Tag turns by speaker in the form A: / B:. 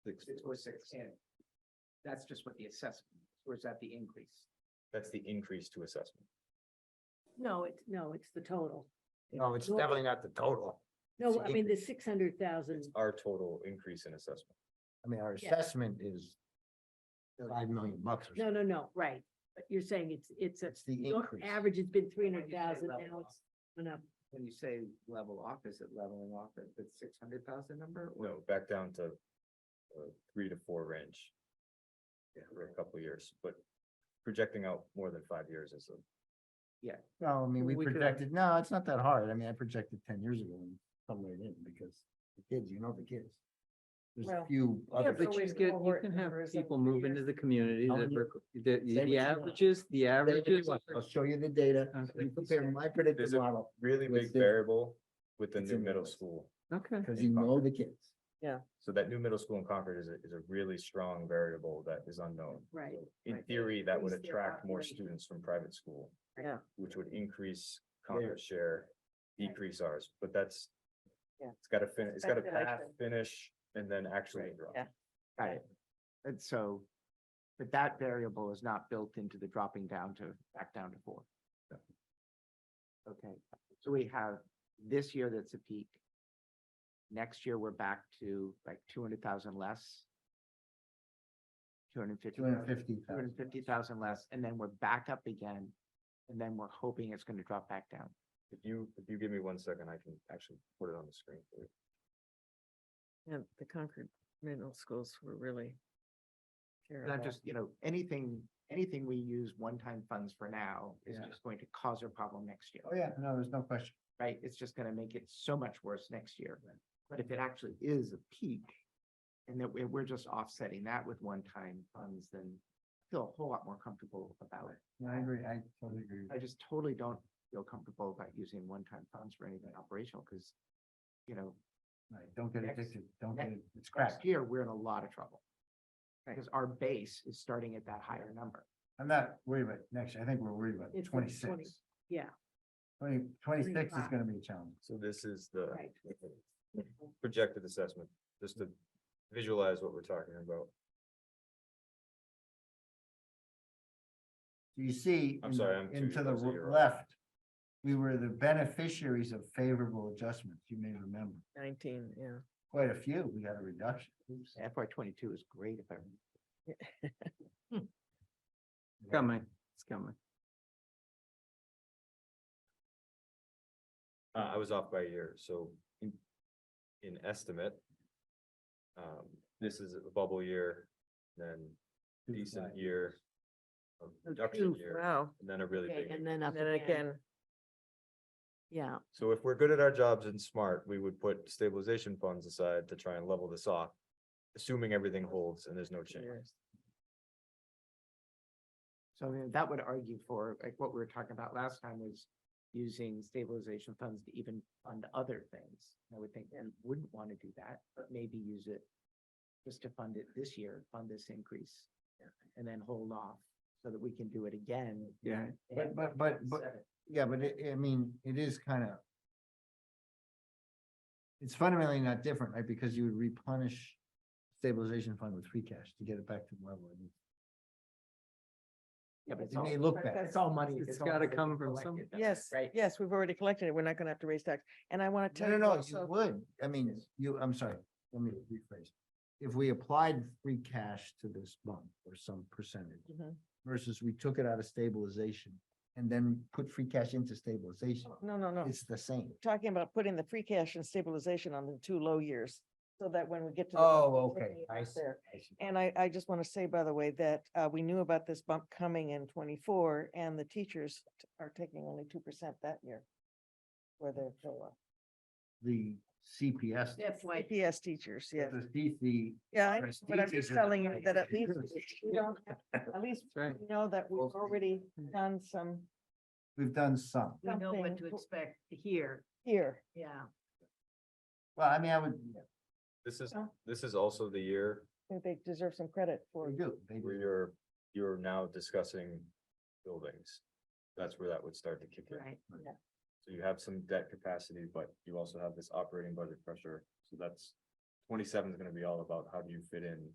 A: Six.
B: Six four six ten. That's just what the assessment, is, or is that the increase?
C: That's the increase to assessment.
D: No, it's, no, it's the total.
E: No, it's
D: Well-
E: definitely not the total. It's
D: No,
E: the
D: I mean, the six hundred thousand,
C: It's our total increase in assessment.
E: I mean, our
D: Yeah.
E: assessment is five million bucks or
D: no,
E: something.
D: no, no, right, but you're saying it's, it's a,
E: That's the
D: your
E: increase.
D: average has been three hundred thousand,
B: Level
D: now
B: off.
D: it's gone up.
B: When you say level off, is it leveling off at the six hundred thousand number? or-
C: No, back down to uh, three to four range. For a couple of years, but projecting out more than five years is a,
E: No, I mean, we
B: We could have-
E: projected, no, it's not that hard. I mean, I projected ten years ago and somewhere it didn't because the kids, you know, the kids. There's a
D: Well,
E: few other.
D: but
A: But you get, you can have people move into the community
E: How
A: that,
E: many-
A: rec- the,
E: what
A: the
E: you want.
A: averages, the averages.
E: I'll show you the data.
A: Okay.
E: You compare my predicted
C: There's a-
E: model
C: really
E: With
C: big
E: the-
C: variable with the
E: It's
C: new
E: in
C: middle
E: place.
C: school.
A: Okay.
E: because you know the kids.
C: So that new middle school in Concord is a, is a really strong variable that is unknown.
D: Right,
C: So In
D: right.
C: theory, that would
D: Increase their
C: attract more
D: population.
C: students from private school.
D: Yeah.
C: Which would increase
E: There.
C: Concord's share,
D: Right.
C: decrease ours, but that's.
D: Yeah.
C: It's gotta fin, it's gotta pass,
D: Speculation.
C: finish, and then actually
B: Right.
C: drop.
D: Yeah.
B: Got it. And so, but that variable is not built into the dropping down to, back down to four.
C: No.
B: Okay, so we have this year that's a peak. Next year, we're back to like two hundred thousand less. Two hundred fifty.
E: Two hundred fifty thousand.
B: less, and then we're back up again. And then we're hoping it's gonna drop back down.
C: If you, if you give me one second, I can actually put it on the screen. for you.
F: And the Concord middle schools were really. care
B: And I'm
F: about-
B: just, you know, anything, anything we use one-time funds for now is
E: Yeah.
B: just going to cause a problem next year.
E: Oh, yeah, no, there's no question.
B: right? It's just gonna make it so much worse next year. But if it actually is a peak and that we're, we're just offsetting that with one-time funds, then I feel a whole lot more comfortable about it.
E: No, I agree. I totally agree.
B: I just totally don't feel comfortable about using one-time funds for anything operational because, you know,
E: Right, Don't get
B: Next-
E: addicted. Don't
B: next-
E: get, it- it's crap.
B: next year, we're in a lot of trouble. Because our base is starting at that higher number.
E: I'm not worried about next year. I think we're worried about
D: It's the 20
E: twenty-six.
D: yeah.
E: Twenty, twenty-six is
D: 25.
E: gonna be a challenge.
C: So this is the
D: Right.
C: projected assessment, just to visualize what we're talking about.
E: So You see,
C: I'm
E: in
C: sorry,
E: the-
C: I'm two
E: into
C: years
E: the
C: old, so
E: r-
C: you're right.
E: left, we were the beneficiaries of favorable adjustments, you may remember.
F: Nineteen, yeah.
E: Quite a few, we got a reduction. Oops.
B: FY twenty-two is great if I remember.
A: It's Coming, it's coming.
C: Uh, I was off by a year, so in, in estimate. Um, this is a bubble year, then
E: Two
C: decent
E: flat.
C: year. a Reduction
D: Oh, two,
C: year,
F: Wow.
C: and then a really
D: Okay,
C: big.
D: And
C: year.
D: then up
F: And then
D: again,
F: again,
D: yeah,
C: So if we're good at our jobs and smart, we would put stabilization funds aside to try and level this off. Assuming everything holds and there's no change.
F: years.
B: So I mean, that would argue for, like, what we were talking about last time was using stabilization funds to even fund other things. I would think we wouldn't want to do that, but maybe use it just to fund it this year, fund this increase, and then hold off so that we can do it again.
A: Yeah.
E: But, but, but, but, yeah, but it, I mean, it is kind of. It's fundamentally not different, right? Because you would replenish stabilization fund with free cash to get it back to the level. it needs.
B: Yeah, but it's
E: It
B: all,
E: may look
B: but
E: bad.
B: that's all money.
A: It's
B: all
A: gotta
B: money that
A: come
B: we
A: from
B: collected,
A: somewhere.
B: that's
F: Yes,
B: Right.
F: yes, we've already collected it. We're not gonna have to raise tax. And I wanna
E: No,
F: tell
E: no,
F: you
E: no, you
F: also,
E: would. I mean, you, I'm sorry, let me rephrase. If we applied free cash to this bond or some percentage
F: Mhm.
E: versus we took it out of stabilization and then put free cash into stabilization,
F: no, Oh, no, no.
E: it's the same.
F: Talking about putting the free cash and stabilization on the two low years, so that when we get to. the-
E: Oh, okay,
F: Right
E: I see.
F: there.
E: I see.
F: And I, I just want to say, by the way, that uh, we knew about this bump coming in twenty-four and the teachers t- are taking only two percent that year. For their COLA.
E: The CPS,
D: that's why,
F: CPS teachers, yeah.
E: the DC,
F: Yeah, I know,
E: Whereas
F: but I'm
E: teachers
F: just
E: are
F: telling you
E: paid.
F: that at least, we don't, at least
A: That's right.
F: we know that we've
E: Both teachers.
F: already done some
E: we've done some.
D: we know
F: something
D: what to expect here,
F: here.
D: yeah.
E: Well, I mean, I would,
C: This is,
F: Oh.
C: this is also the year
F: I think They deserve some credit for.
E: we do. They
C: where
E: do.
C: you're, you're now discussing buildings. That's where that would start to kick in.
D: Right.
C: So you have some debt capacity, but you also have this operating budget pressure. So that's Twenty-seven is gonna be all about how do you fit in